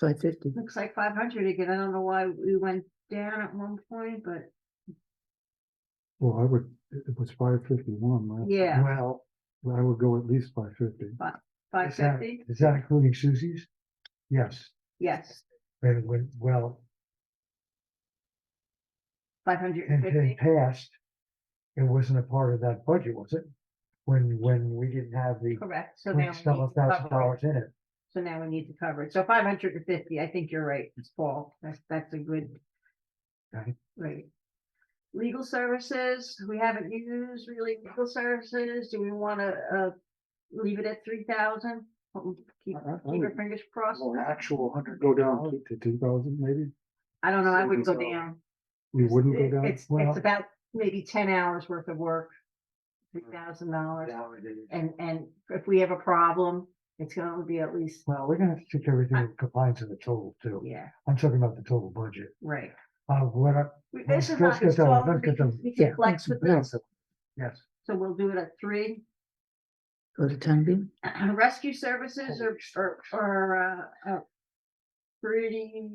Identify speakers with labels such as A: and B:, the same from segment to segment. A: five fifty.
B: Looks like five hundred again. I don't know why we went down at one point, but
C: Well, I would, it it was five fifty-one, right?
B: yeah,
A: Well,
C: I would go at least five fifty.
B: five
A: is that-
B: fifty,
A: is that including Susie's?
C: Yes,
B: yes,
A: And when, well,
B: five hundred and
A: in, in
B: fifty.
A: past, it wasn't a part of that budget, was it? When, when we didn't have the
B: Correct, so now. we need
A: twenty-seven
B: to
A: thousand
B: cover it.
A: dollars in it.
B: So now we need to cover it. So five hundred and fifty, I think you're right, it's Paul. That's, that's a good.
A: Right.
B: Right. Legal services, we haven't used really legal services. Do we wanna, uh, leave it at three thousand? Keep,
C: I- I- I
B: keep your
C: would-
B: fingers crossed.
A: Oh. Well, actual hundred
C: go down to- to two thousand maybe,
B: I don't know, I wouldn't go
A: savings
B: down.
C: you
B: It's-
C: wouldn't
B: it-
C: go down.
B: It's,
C: Well,
B: it's about maybe ten hours worth of work. Three thousand dollars, and, and if we have a problem, it's gonna be at least,
A: Well, we're gonna have to check everything in compliance of the total too.
B: yeah,
A: I'm talking about the total budget.
B: right.
A: Uh, what, I-
B: We-
A: Well,
B: This is
A: let's
B: not,
A: get
B: it's
A: that one,
B: all-
A: let's
B: we
A: get
B: can
A: them-
B: we can
A: yeah,
B: flex with
A: yeah.
B: this,
A: yes,
B: so we'll do it at three.
D: Go to time being.
B: Rescue services are, are, are, uh, uh, pretty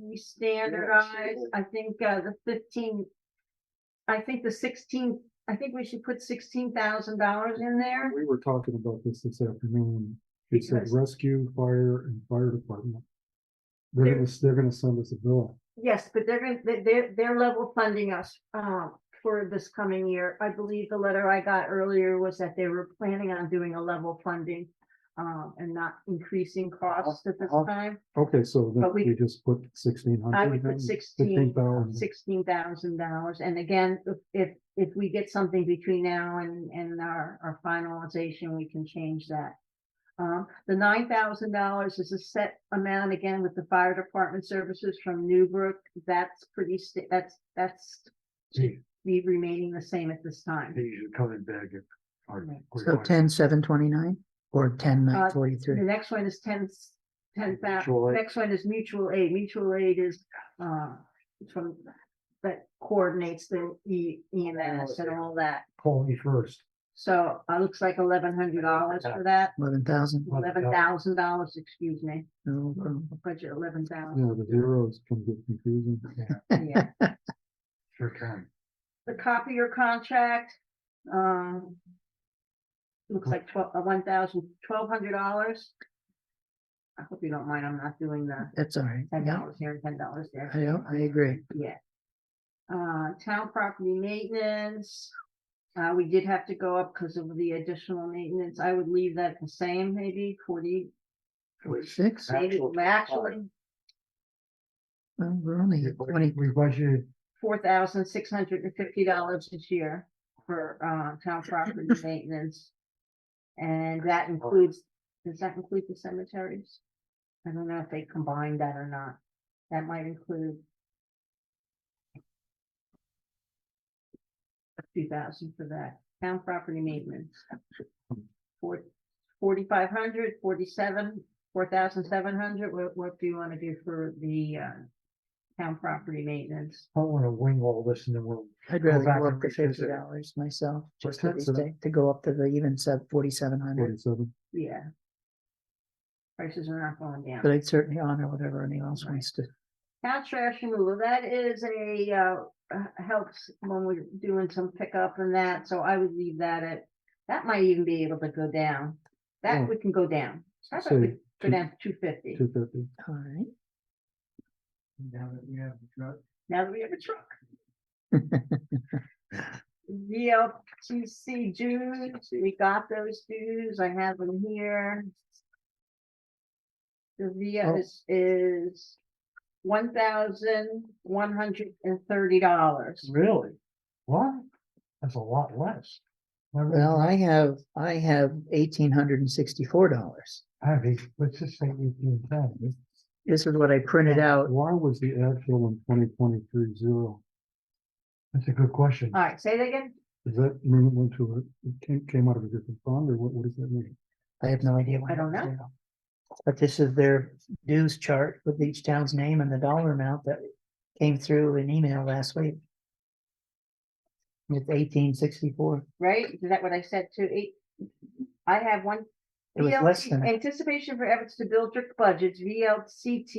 B: standardized, I think, uh, the fifteen. I think the sixteen, I think we should put sixteen thousand dollars in there.
C: we were talking about this this afternoon, it said
B: Because-
C: rescue, fire and fire department. They're
B: There-
C: gonna, s- they're gonna send us a bill,
B: Yes, but they're gonna, they- they're, they're level funding us, um, for this coming year. I believe the letter I got earlier was that they were planning on doing a level funding. Um, and not increasing costs at this
C: Uh-huh.
B: time,
C: okay, so then
B: But we-
C: we just put sixteen hundred.
B: I would put 16,
A: Mm-hmm.
C: thousand,
B: sixteen thousand dollars. And again, if- if, if we get something between now and, and our, our finalization, we can change that. Um, the nine thousand dollars is a set amount again with the fire department services from Newbrook. That's pretty, sta- that's, that's be remaining the same at this time.
A: These are coming back if. our
B: Right.
D: So
A: requirements-
D: ten, seven twenty-nine or ten,
B: Uh,
D: nine
B: The
D: forty-three.
B: next one is ten, ten thousand,
A: Mutual aid.
B: next one is mutual aid, mutual aid is, uh, from, that coordinates the E, EMS and all that.
A: Call me first.
B: So, uh, looks like eleven hundred dollars for that,
D: Eleven thousand.
B: eleven thousand dollars, excuse me,
D: No problem.
B: budget eleven thousand,
C: Yeah, the zeros can get confusing.
B: yeah.
A: Sure can.
B: the copier contract, um. Looks like twelve, uh, one thousand, twelve hundred dollars. I hope you don't mind, I'm not doing the
D: That's all right.
B: ten
D: Yeah,
B: dollars here and ten dollars there,
D: I, don't- I agree.
B: yeah. Uh, town property maintenance, uh, we did have to go up because of the additional maintenance, I would leave that the same, maybe forty,
D: Forty-six?
B: maybe,
A: Actual
B: actually.
D: Well, we're only
A: We
D: at twenty.
A: budgeted
B: four thousand six hundred and fifty dollars this year for uh town property maintenance. And that includes, does that include the cemeteries? I don't know if they combined that or not. That might include. Two thousand for that, town property maintenance. Four, forty-five hundred, forty-seven, four thousand seven hundred, what what do you wanna do for the uh town property maintenance?
A: I don't wanna wing all this and then we'll.
D: I'd rather
A: back
D: go
A: and
D: up to
A: revisit
D: fifty
A: it.
D: dollars myself,
A: What's
D: just to
A: that,
D: be
A: so that-
D: safe, to go up to the even sub forty-seven hundred.
C: Forty-seven,
B: Yeah. Prices are not going
D: But
B: down.
D: I'd certainly honor whatever anyone else
B: Right.
D: wants to.
B: Town trash removal, that is a, uh, uh, helps when we're doing some pickup and that, so I would leave that at, that might even be able to go down. That
C: Mm.
B: we can go down. How about
C: So
B: we go
C: two-
B: down to two fifty,
C: two fifty.
D: All right.
A: Now that we have the truck.
B: now that we have a truck. VLCC dues, we got those dues, I have them here. The
C: Oh.
B: VL is, is one thousand one hundred and thirty dollars.
A: Really? What? That's a lot less. I really-
D: Well, I have, I have eighteen hundred and sixty-four dollars.
A: I have eight, let's just say eighteen ten.
D: This is what I printed out.
C: Why was the actual in twenty twenty-three zero?
A: That's a good question.
D: Uh,
B: All right, say that again,
C: Does that mean it went to a, it came, came out of a different fund or what, what does that mean?
D: I have no idea. what
B: I don't
D: happens there. But this is their dues chart with each town's name and the dollar amount that came through an email last week. It's eighteen sixty-four.
B: right? Is that what I said to eight? I have one.
D: It was less
B: VLC
D: than that.
B: Anticipation for efforts to build strict budgets, VLCT